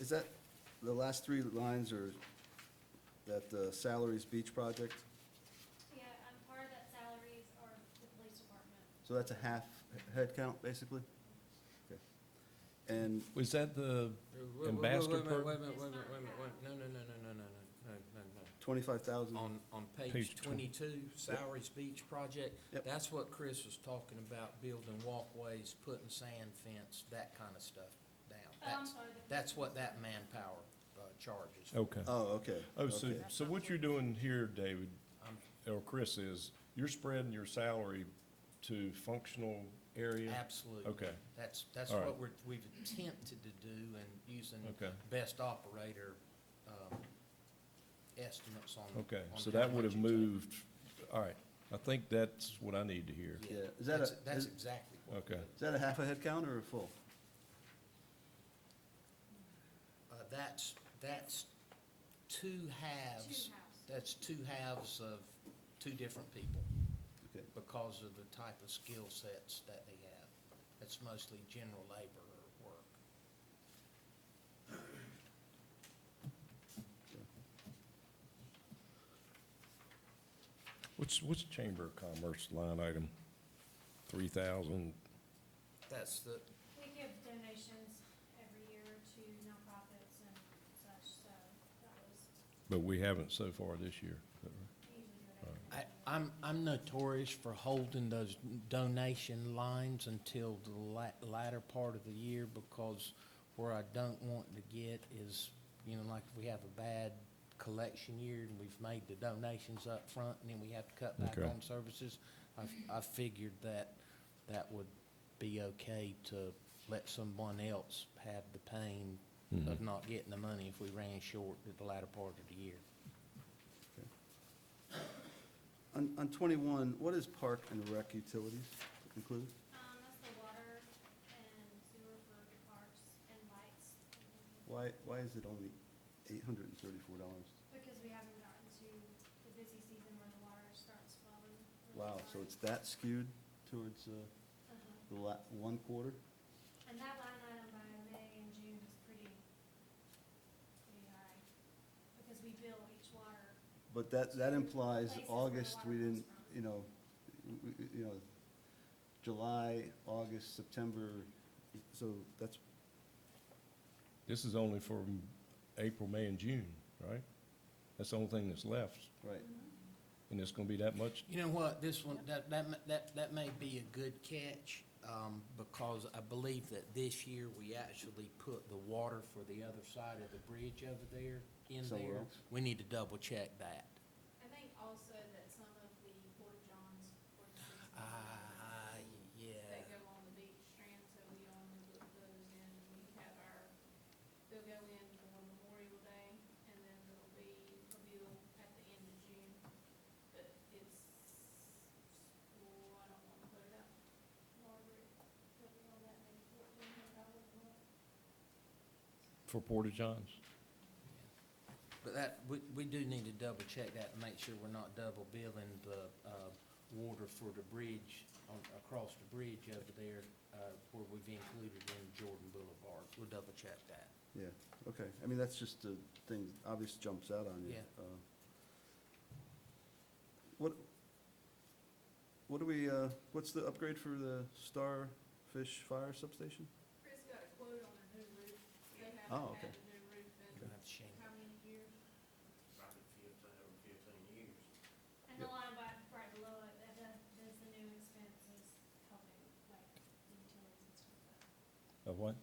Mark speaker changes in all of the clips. Speaker 1: Is that, the last three lines are that uh, salaries beach project?
Speaker 2: Yeah, um, part of that salaries are the police department.
Speaker 1: So that's a half head count, basically? Okay. And,
Speaker 3: Was that the
Speaker 4: Wait, wait, wait,
Speaker 3: ambassador
Speaker 4: Wait, a minute, wait,
Speaker 3: program?
Speaker 4: a minute, wait, a minute, wait, a minute, wait, a minute. no, no, no, no, no, no, no, no,
Speaker 1: Twenty-five thousand,
Speaker 4: no. On, on page
Speaker 3: Page twen-
Speaker 4: twenty-two, Sowery's Beach Project,
Speaker 1: Yep.
Speaker 4: that's what Chris was talking about, building walkways, putting sand fence, that kind of stuff down.
Speaker 2: Oh, I'm
Speaker 4: That's,
Speaker 2: sorry, the-
Speaker 4: that's what that manpower, uh, charges.
Speaker 3: Okay.
Speaker 1: oh, okay.
Speaker 5: Oh, so,
Speaker 1: okay.
Speaker 5: so what you're doing here, David,
Speaker 4: I'm-
Speaker 5: or Chris, is you're spreading your salary to functional area?
Speaker 4: Absolutely.
Speaker 5: Okay,
Speaker 4: That's, that's
Speaker 5: All right.
Speaker 4: what we're, we've attempted to do and using
Speaker 5: Okay.
Speaker 4: best operator, um, estimates on.
Speaker 5: okay,
Speaker 4: on
Speaker 5: so
Speaker 4: how
Speaker 5: that would
Speaker 4: much
Speaker 5: have
Speaker 4: it's up.
Speaker 5: moved, all right, I think that's what I need to hear.
Speaker 1: Yeah. Is that
Speaker 4: That's,
Speaker 1: a-
Speaker 4: that's
Speaker 1: is-
Speaker 4: exactly what,
Speaker 5: Okay,
Speaker 1: Is that a half a head count or a full?
Speaker 4: uh, that's, that's two halves.
Speaker 2: Two halves.
Speaker 4: That's two halves of two different people
Speaker 1: Okay.
Speaker 4: because of the type of skill sets that they have. That's mostly general labor work.
Speaker 5: what's, what's Chamber of Commerce line item? Three thousand,
Speaker 4: That's the,
Speaker 2: We give donations every year to nonprofits and such, so that was,
Speaker 5: but we haven't so far this year.
Speaker 2: we usually do it every
Speaker 4: I,
Speaker 2: year.
Speaker 4: I'm, I'm notorious for holding those donation lines until the la- latter part of the year because where I don't want to get is, you know, like if we have a bad collection year and we've made the donations up front and then we have to cut back
Speaker 5: Okay.
Speaker 4: on services, I, I figured that that would be okay to let someone else have the pain of
Speaker 5: Mm-hmm.
Speaker 4: not getting the money if we ran short at the latter part of the year.
Speaker 1: On, on twenty-one, what is park and rec utilities included?
Speaker 2: Um, that's the water and sewer for the parks and lights.
Speaker 1: Why, why is it only eight hundred and thirty-four dollars?
Speaker 2: Because we haven't gotten to the busy season where the water starts flowing. really
Speaker 1: Wow, so
Speaker 2: hard.
Speaker 1: it's that skewed towards, uh,
Speaker 2: Uh-huh.
Speaker 1: the la, one quarter?
Speaker 2: And that line item by May and June was pretty, pretty high, because we bill each water.
Speaker 1: But that, that implies
Speaker 2: Places where
Speaker 1: August,
Speaker 2: water
Speaker 1: we
Speaker 2: comes
Speaker 1: didn't,
Speaker 2: from.
Speaker 1: you know, w- w- you know, July, August, September, so that's,
Speaker 5: This is only from April, May, and June, right? That's the only thing that's left,
Speaker 1: right.
Speaker 5: and it's gonna be that much?
Speaker 4: You know what, this one, that, that, ma- that, that may be a good catch, um, because I believe that this year we actually put the water for the other side of the bridge over there in
Speaker 1: Somewhere
Speaker 4: there.
Speaker 1: else.
Speaker 4: We need to double check that.
Speaker 6: I think also that some of the Port Johns ordinances
Speaker 4: Ah, yeah.
Speaker 6: that go on the beach strand, so we own the- those in, we have our, they'll go in for Memorial Day, and then there'll be repeal at the end of June. But it's, well, I don't wanna put it up, Margaret, put it on that maybe fourteen hundred dollars a month.
Speaker 5: For Porta Johns?
Speaker 4: But that, we, we do need to double check that and make sure we're not double billing the, uh, water for the bridge on, across the bridge over there, uh, where we've included in Jordan Boulevard. We'll double check that.
Speaker 1: Yeah, okay. I mean, that's just the thing, obvious jumps out on you.
Speaker 4: Yeah.
Speaker 1: Uh, What, what do we, uh, what's the upgrade for the Starfish Fire Substation?
Speaker 6: Chris got a quote on a new roof, they
Speaker 1: Oh,
Speaker 6: haven't
Speaker 1: okay.
Speaker 6: had a new roof
Speaker 4: We'll
Speaker 6: in
Speaker 4: have to shame
Speaker 6: how many years?
Speaker 2: And the line by, right below it, that, does does the new expenses helping, like, the utilities and stuff like that.
Speaker 5: Of what?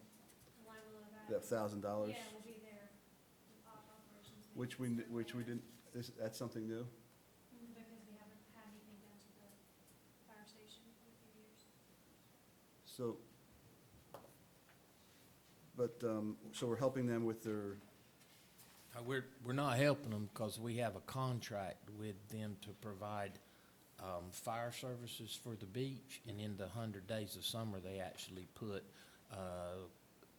Speaker 2: The line below that.
Speaker 1: That thousand dollars,
Speaker 2: Uh, Yeah, will be there, op- operations.
Speaker 1: which we,
Speaker 2: maintenance,
Speaker 1: which we didn't, this, that's something new?
Speaker 2: Mhm, Because we haven't had anything done to the fire station in a few years.
Speaker 1: So, but, um, so we're helping them with their,
Speaker 4: Uh, We're, we're not helping them because we have a contract with them to provide um, fire services for the beach. And in the 100 days of summer, they actually put uh,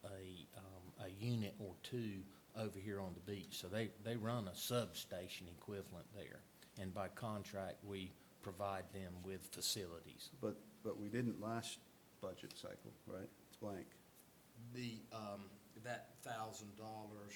Speaker 4: a, um, a unit or two over here on the beach. So they, they run a substation equivalent there. And by contract, we provide them with facilities.
Speaker 1: but, but we didn't last budget cycle, right? It's blank.
Speaker 4: The, um, that thousand dollars